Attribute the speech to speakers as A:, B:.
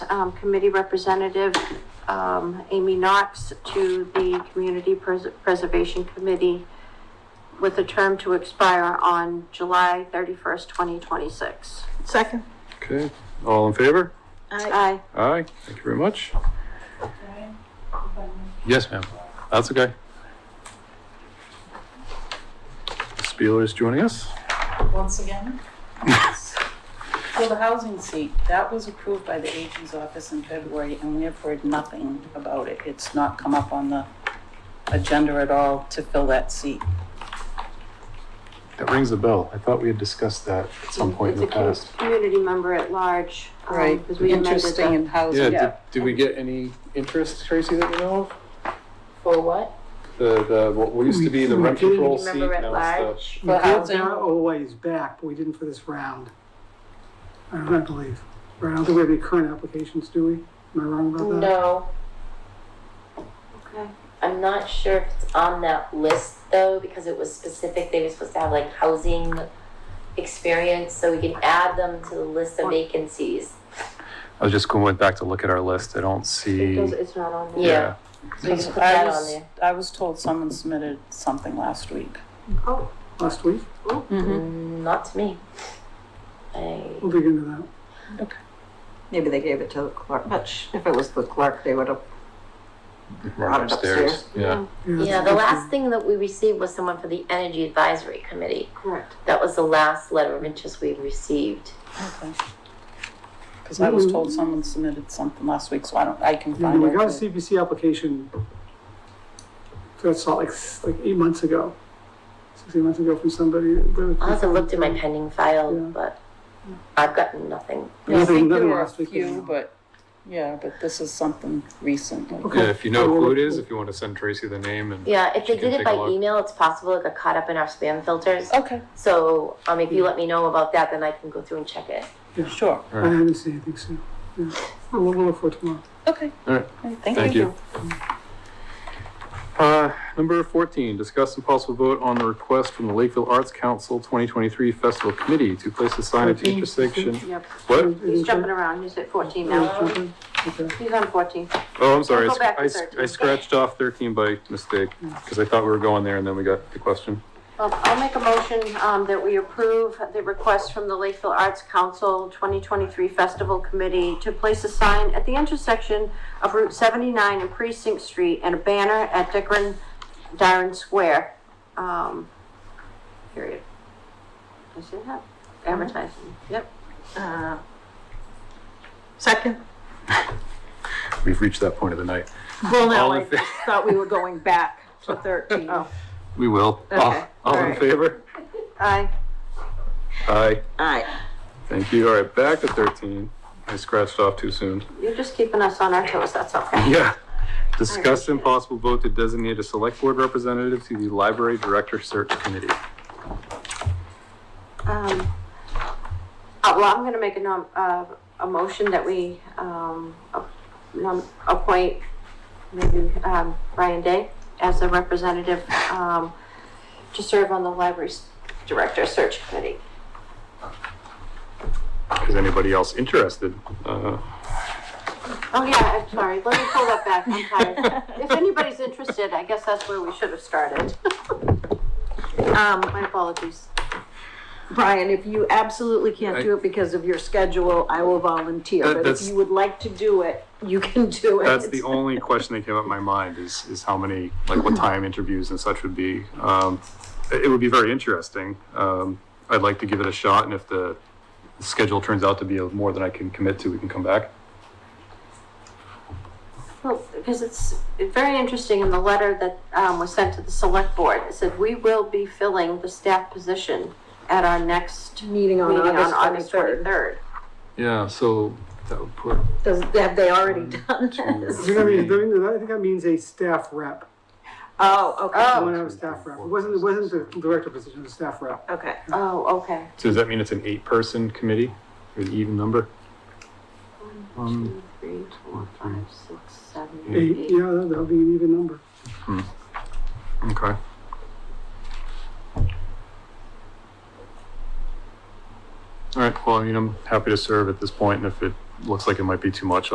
A: um, committee representative, um, Amy Knox to the Community Pres- Preservation Committee with a term to expire on July thirty-first, twenty twenty-six.
B: Second.
C: Okay, all in favor?
A: Aye.
C: Aye, thank you very much. Yes, ma'am, that's okay. Spieler is joining us.
B: Once again. So the housing seat, that was approved by the AG's office in February, and we have heard nothing about it. It's not come up on the agenda at all to fill that seat.
C: That rings a bell. I thought we had discussed that at some point in the
A: It's a com-
C: past.
A: Community member at large. um, Because we amended
B: Interesting
A: the,
B: in housing.
C: Yeah, did, did we get any interest, Tracy, that you know of?
D: For what?
C: The, the, what used to be the
E: We- we
C: rent control
D: did.
C: seat,
D: Remember at
C: now it's
D: large?
E: We
B: For
E: did
B: housing.
E: that a ways back, but we didn't for this round. I don't I believe. Right, I don't think we have any current applications, do we? Am I wrong about that?
D: No,
A: okay,
D: I'm not sure if it's on that list though, because it was specific, they were supposed to have like housing experience, so we can add them to the list of vacancies.
C: the. I was just going went back to look at our list. I don't see.
A: because it's not on there.
D: Yeah. So you
B: Because
D: can put
B: I
D: that on
B: was,
D: there.
B: I was told someone submitted something last week.
A: Oh,
E: Last week?
D: Mm, Not to me. I,
E: We'll dig into that.
F: Maybe they gave it to the clerk, but sh- if it was the clerk, they would have,
C: Right upstairs, yeah.
E: that's
D: yeah,
E: a
D: the
E: good
D: last thing that we received was someone for the Energy Advisory Committee.
A: correct.
D: That was the last letter of interest we received.
B: Because I was told someone submitted something last week, so I don't, I can
E: thing. Mm-hmm. Yeah,
B: find
E: We got a
B: out.
E: CPC application for salt like, s- like eight months ago. Six, eight months ago from somebody.
D: I also looked in my pending file,
E: Mm-hmm. Yeah.
D: but I've gotten nothing.
B: I
E: Nothing-
B: think there
E: nothing
B: were a
E: last week,
B: few,
E: anyhow.
B: but, yeah, but this is something recent. like-
E: Okay.
C: Yeah, if you know who it is, if you want to send Tracy the name and.
D: Yeah, if
C: She
D: they
C: can
D: did it
C: take a
D: by
C: look.
D: email, it's possible it got caught up in our spam filters.
B: Okay,
D: So um, if you let me know about that, then I can go through and check it.
B: sure,
E: I haven't seen anything, so, yeah. We'll, we'll look for it tomorrow.
B: okay.
C: All right. Thank you. Uh, number fourteen, discuss and possible vote on the request from the Lakeville Arts Council twenty twenty-three Festival Committee to place a sign at the
E: 14.
C: intersection.
A: Yep.
C: What?
E: Mm-hmm.
A: He's jumping around. He's at fourteen now.
E: Okay. Okay.
A: He's on fourteen.
C: Oh, I'm sorry.
A: Go back to
C: I sc-
A: 13.
C: I scratched off thirteen by mistake because I thought we were going there and then we got the question.
A: Well, Um, I'll make a motion, um, that we approve the request from the Lakeville Arts Council twenty twenty-three Festival Committee to place a sign at the intersection of Route seventy-nine and Precinct Street and a banner at Dickren Darren Square. Um, period. I see that, advertising, yep.
F: uh, second.
C: We've reached that point of the night.
F: Well,
C: All
F: no,
C: in
F: I just thought we were going back to thirteen.
A: Oh.
C: We will. All
F: Okay,
C: all in
F: alright.
C: favor?
A: Aye.
C: Aye.
F: Aye.
C: Thank you. All right, back to thirteen. I scratched off too soon.
A: You're just keeping us on our toes, that's okay.
C: Yeah. Discuss impossible vote to designate a select board representative to the library director search committee.
A: Um, uh, well, I'm gonna make a nom, uh, a motion that we, um, a- nom, appoint maybe, um, Ryan Day as a representative, um, to serve on the library's director search committee.
C: Is anybody else interested? Uh,
A: Oh, yeah, I'm sorry, let me pull that back, I'm tired. If anybody's interested, I guess that's where we should have started.
F: Um,
A: My apologies.
F: Brian, if you absolutely can't do it because of your schedule, I will
C: That-
F: volunteer. But if
C: that's-
F: you would like to do it, you can do it.
C: That's the only question that came up in my mind is, is how many, like what time interviews and such would be. Um, it it would be very interesting. Um, I'd like to give it a shot and if the schedule turns out to be of more than I can commit to, we can come back.
A: Well, because it's very interesting in the letter that um, was sent to the select board, it said, "We will be filling the staff position at our next
F: Meeting on
A: meeting on August
F: August twenty-third.
A: twenty-third.
C: Yeah, so that would put
F: Does, have they already done this?
E: I think that means- I think that- I think that means a staff rep.
F: Oh, okay,
E: One of staff rep. It wasn't, it wasn't the director position, it was staff rep.
F: okay.
A: Oh, okay.
C: So does that mean it's an eight-person committee, or an even number? Um,
A: Two, three, four, five, six, seven,
E: Eight,
A: eight.
E: yeah, that- that'll be an even number.
C: Okay. All right, well, I mean, I'm happy to serve at this point, and if it looks like it might be too much,